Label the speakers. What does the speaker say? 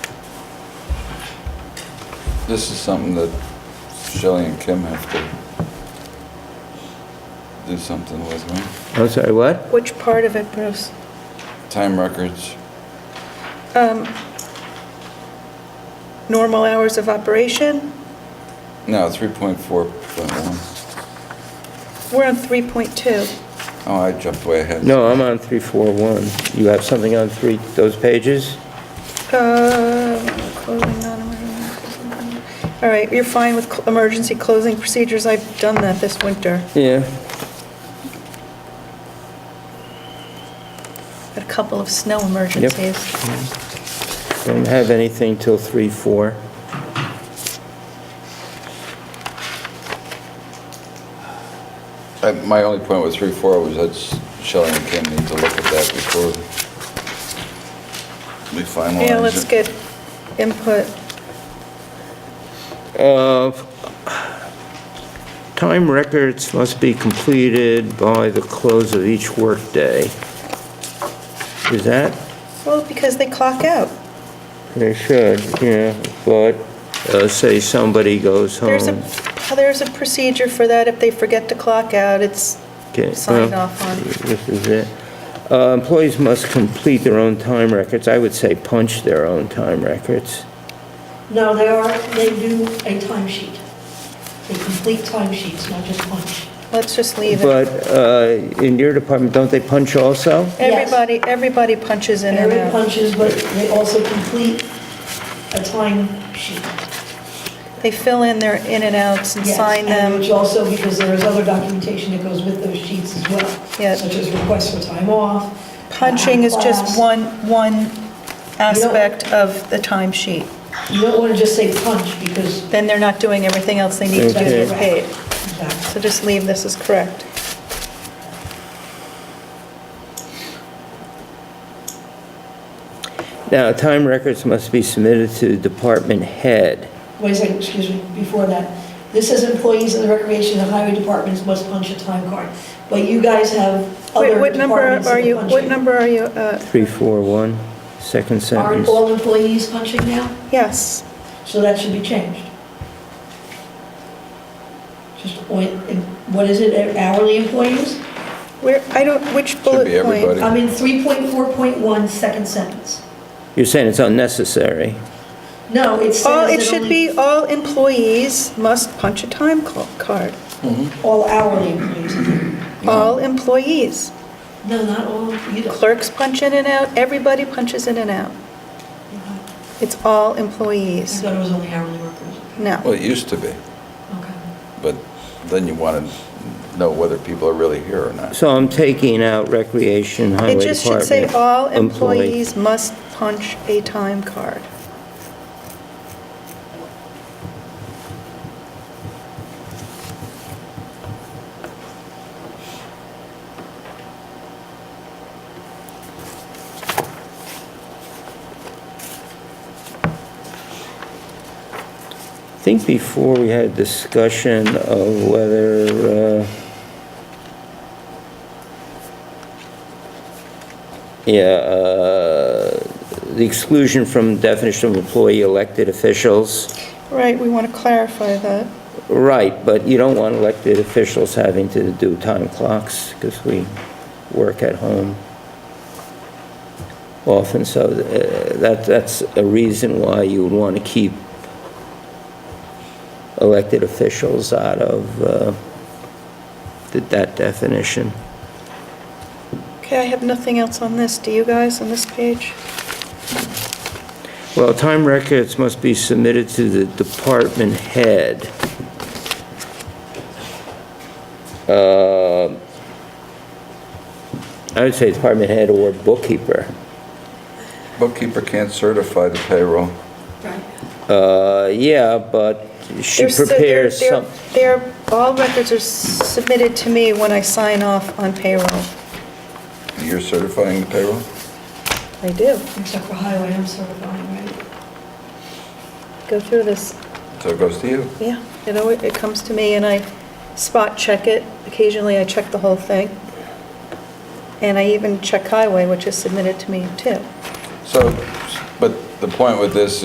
Speaker 1: This is something that Shelley and Kim have to do something with, right?
Speaker 2: I'm sorry, what?
Speaker 3: Which part of it, Bruce?
Speaker 1: Time records,
Speaker 3: Normal hours of operation?
Speaker 1: no, 3.4.1.
Speaker 3: We're on 3.2.
Speaker 1: Oh, I jumped way ahead.
Speaker 2: No, I'm on 341. You have something on three, those pages?
Speaker 3: Uh, Closing non-emergency. All right, you're fine with cl- emergency closing procedures. I've done that this winter
Speaker 2: Yeah.
Speaker 3: at a couple of snow emergencies.
Speaker 2: Don't have anything till 34.
Speaker 1: I- My only point with 3.4 was that Shelley and Kim need to look at that before we finalize it.
Speaker 3: Yeah, let's get input.
Speaker 2: Uh, Time records must be completed by the close of each workday. Is that?
Speaker 3: Well, because they clock out.
Speaker 2: They should, yeah, but uh, say somebody goes home.
Speaker 3: There's a, there's a procedure for that. If they forget to clock out, it's
Speaker 2: Okay,
Speaker 3: signed
Speaker 2: well,
Speaker 3: off on.
Speaker 2: This is it. Uh, Employees must complete their own time records. I would say punch their own time records.
Speaker 4: No, they are, they do a timesheet. They complete timesheets, not just punch.
Speaker 3: Let's just leave it.
Speaker 2: But uh, in your department, don't they punch also?
Speaker 3: Everybody, everybody punches in and
Speaker 4: Every
Speaker 3: out.
Speaker 4: punches, but they also complete a timesheet.
Speaker 3: They fill in their in and outs and
Speaker 4: Yes,
Speaker 3: sign
Speaker 4: and
Speaker 3: them.
Speaker 4: Which also, because there is other documentation that goes with those sheets as well.
Speaker 3: Yes.
Speaker 4: Such as requests for time off.
Speaker 3: Punching is
Speaker 4: class.
Speaker 3: just one, one aspect of the timesheet.
Speaker 4: You don't want to just say punch because
Speaker 3: Then they're not doing everything else they need to do to
Speaker 2: Okay.
Speaker 3: get paid.
Speaker 4: that's
Speaker 3: So just leave this as correct.
Speaker 2: Now, time records must be submitted to department head.
Speaker 4: Wait a second, excuse me, before that. This says employees in the recreation and highway departments must punch a time card. But you guys have
Speaker 3: Wait,
Speaker 4: other
Speaker 3: what number
Speaker 4: departments
Speaker 3: are
Speaker 4: that
Speaker 3: you,
Speaker 4: punch
Speaker 3: what
Speaker 4: in.
Speaker 3: number are you, uh,
Speaker 2: 341, second
Speaker 4: Aren't
Speaker 2: sentence.
Speaker 4: all employees punching now?
Speaker 3: yes,
Speaker 4: So that should be changed. Just, what what is it, hourly employees?
Speaker 3: where, I don't, which bullet
Speaker 1: be everybody.
Speaker 3: point?
Speaker 4: I'm in 3.4.1, second sentence.
Speaker 2: You're saying it's unnecessary.
Speaker 4: No, it
Speaker 3: All,
Speaker 4: says
Speaker 3: Oh, it
Speaker 4: that
Speaker 3: should
Speaker 4: only
Speaker 3: be, all employees must punch a time cl- card.
Speaker 1: Mm-hmm.
Speaker 4: all hourly employees.
Speaker 3: All employees.
Speaker 4: No, not all, you don't.
Speaker 3: Clerks punch in and out, everybody punches in and out. It's all
Speaker 4: I
Speaker 3: employees.
Speaker 4: thought it was only hourly workers.
Speaker 1: Well,
Speaker 3: No.
Speaker 1: it used to be,
Speaker 4: Okay.
Speaker 1: but then you want to know whether people are really here or not.
Speaker 2: So I'm taking out recreation, highway
Speaker 3: It
Speaker 2: department.
Speaker 3: just should say, all
Speaker 2: employee.
Speaker 3: employees must punch a time card.
Speaker 2: I think before we had discussion of whether, uh, yeah, uh, the exclusion from definition of employee elected officials.
Speaker 3: Right, we want to clarify that.
Speaker 2: Right, but you don't want elected officials having to do time clocks because we work at home often, so uh, that, that's a reason why you would want to keep elected officials out of uh, th- that definition.
Speaker 3: Okay, I have nothing else on this. Do you guys on this page?
Speaker 2: Well, time records must be submitted to the department head. Uh, I would say department head or bookkeeper.
Speaker 1: Bookkeeper can't certify the payroll.
Speaker 4: Right.
Speaker 2: Uh, Yeah, but she
Speaker 3: They're s- they're-
Speaker 2: prepares
Speaker 3: they're-
Speaker 2: some,
Speaker 3: They're, all records are submitted to me when I sign off on payroll.
Speaker 1: You're certifying the payroll?
Speaker 3: I do.
Speaker 4: Except for highway, I'm certifying, right?
Speaker 3: Go through this.
Speaker 1: So it goes to you.
Speaker 3: Yeah, it always, it comes to me and I spot check it. Occasionally I check the whole thing. And I even check highway, which is submitted to me too.
Speaker 1: So, but the point with this